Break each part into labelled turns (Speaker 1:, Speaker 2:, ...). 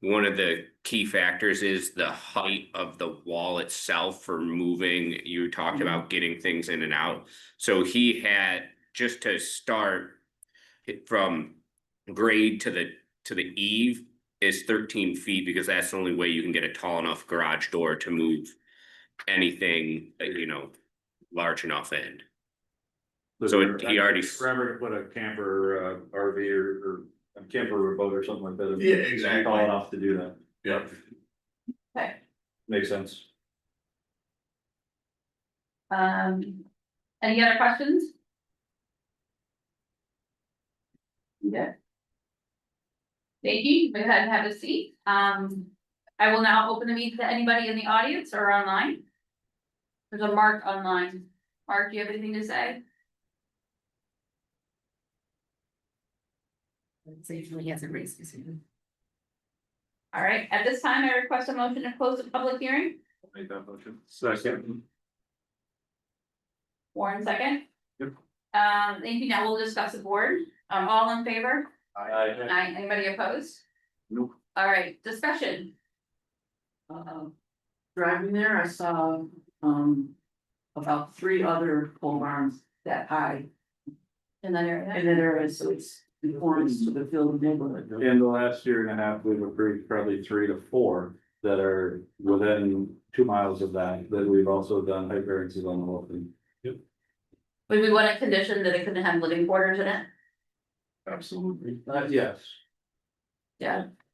Speaker 1: One of the key factors is the height of the wall itself for moving. You talked about getting things in and out. So he had, just to start. It from grade to the, to the eve is thirteen feet because that's the only way you can get a tall enough garage door to move. Anything, uh, you know, large enough end. So it- he already-
Speaker 2: Remember to put a camper, uh, RV or, or a camper or boat or something like that.
Speaker 3: Yeah,
Speaker 2: It's
Speaker 3: exactly.
Speaker 2: Tall enough to do that.
Speaker 3: Yep.
Speaker 4: Okay,
Speaker 2: Makes sense.
Speaker 4: um, any other questions? Yeah. Thank you, go ahead and have a seat, um, I will now open the meeting to anybody in the audience or online. There's a mark online, Mark, do you have anything to say?
Speaker 5: So usually he hasn't raised his hand.
Speaker 4: All right, at this time, I request a motion to close the public hearing,
Speaker 2: Make that motion. Second.
Speaker 4: Warren second.
Speaker 2: Yep.
Speaker 4: Um, thank you, now we'll discuss the board, um, all in favor,
Speaker 2: I.
Speaker 4: Aye. anybody opposed?
Speaker 2: Nope.
Speaker 4: All right, discussion,
Speaker 5: Um, Driving there, I saw, um, about three other pole barns that high
Speaker 4: in that area.
Speaker 5: in that area, so it's conforms to the field neighborhood.
Speaker 2: In the last year and a half, we've approved probably three to four that are within two miles of that, that we've also done height variances on the whole thing.
Speaker 4: Would we want a condition that it couldn't have living quarters in it?
Speaker 5: Absolutely.
Speaker 2: Uh, yes.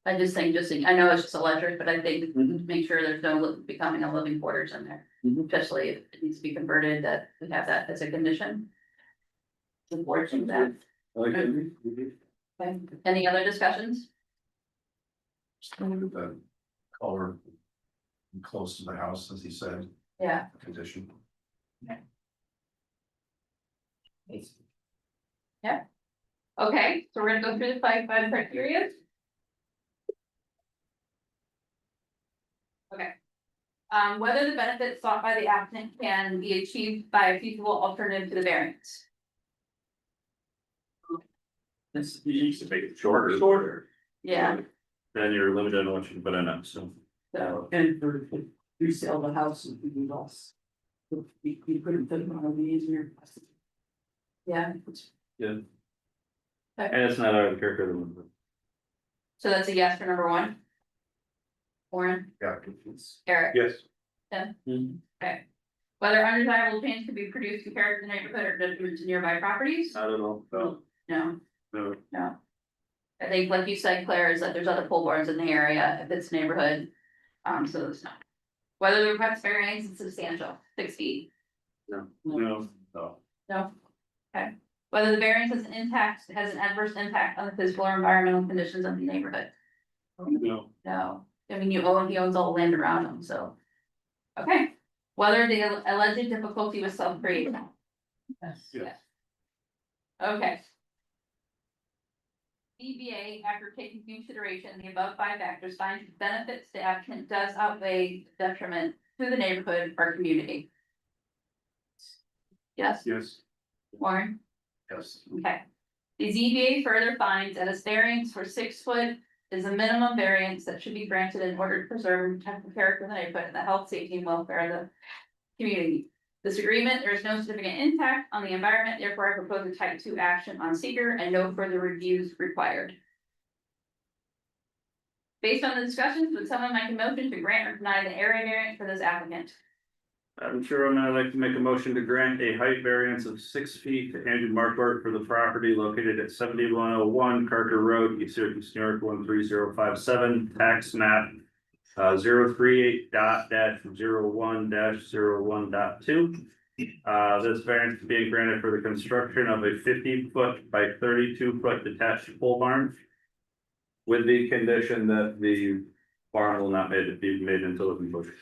Speaker 4: I just think, just, I know it's just electric, but I think
Speaker 2: Mm-hmm.
Speaker 5: Mhm.
Speaker 4: make sure there's no li- becoming a living quarters in there.
Speaker 5: Mhm.
Speaker 4: Especially if it needs to be converted, that we have that as a condition. The board should do that.
Speaker 2: I like it.
Speaker 4: Okay. Any other discussions?
Speaker 3: Just gonna move the uh, color close to the house, as he said,
Speaker 4: Yeah,
Speaker 3: condition.
Speaker 4: okay, so we're gonna go through the five, five criteria. Okay. Um, whether the benefits sought by the applicant can be achieved by a feasible alternative to the variance.
Speaker 5: That's-
Speaker 2: You used to make it shorter. Shorter.
Speaker 4: Yeah,
Speaker 2: Then you're limited on what you can put in it, so.
Speaker 5: So, and for resale the house would be lost. You, you couldn't put them on the easier.
Speaker 4: yeah,
Speaker 2: And it's not out of character to limit.
Speaker 4: so that's a yes for number one. Warren,
Speaker 3: Yeah.
Speaker 4: Eric,
Speaker 2: Yes.
Speaker 4: whether undesirable change could be produced compared to the neighborhood or detriment to nearby properties?
Speaker 2: Not at all.
Speaker 4: No. No,
Speaker 2: No.
Speaker 4: I think like you said, Claire, is that there's other pole barns in the area, if it's neighborhood, um, so it's not. Whether the request variance is substantial, six feet,
Speaker 2: No. No.
Speaker 4: no, okay. Whether the variance has an impact, has an adverse impact on the physical or environmental conditions of the neighborhood,
Speaker 2: No.
Speaker 4: no, I mean, you own, he owns all the land around him, so. Okay, whether the alleged difficulty was self-created,
Speaker 2: Yes.
Speaker 4: Okay. DBA, after taking consideration the above five factors, finds the benefits the applicant does outweigh the detriment to the neighborhood or community. Yes,
Speaker 2: Yes.
Speaker 4: Warren,
Speaker 3: Yes.
Speaker 4: okay. The ZBA further finds that a variance for six foot is a minimum variance that should be granted in order to preserve and protect the character of the neighborhood and the health, safety and welfare of the community. This agreement, there is no significant impact on the environment, therefore I propose a type two action on seeker and no further reviews required. Based on the discussions, would someone make a motion to grant or deny the area variance for this applicant?
Speaker 2: I'm sure I'm gonna like to make a motion to grant a height variance of six feet to Andrew Markwart for the property located at seventy-one oh one Carter Road, East Syracuse, New York, one three zero five seven, tax map. Uh, zero three eight dot dash zero one dash zero one dot two. Uh, this variance is being granted for the construction of a fifty-foot by thirty-two-foot detached pole barn. With the condition that the barn will not made- be made into living quarters.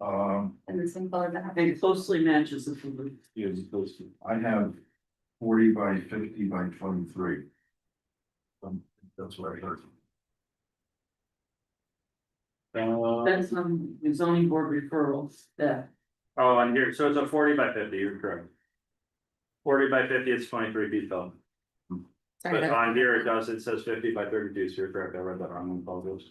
Speaker 3: Um,
Speaker 4: And the same color that.
Speaker 5: It closely matches the food.
Speaker 3: I have forty by fifty by twenty-three. Um, that's what I heard.
Speaker 2: Uh,
Speaker 5: That's from the zoning board referrals that
Speaker 2: Oh, and here, so it's a forty by fifty, you're correct. Forty by fifty, it's twenty-three feet tall.
Speaker 6: Sorry,
Speaker 2: But uh,
Speaker 6: that-
Speaker 2: on here it does, it says fifty by thirty-two, so you're correct, I read that wrong, I apologize.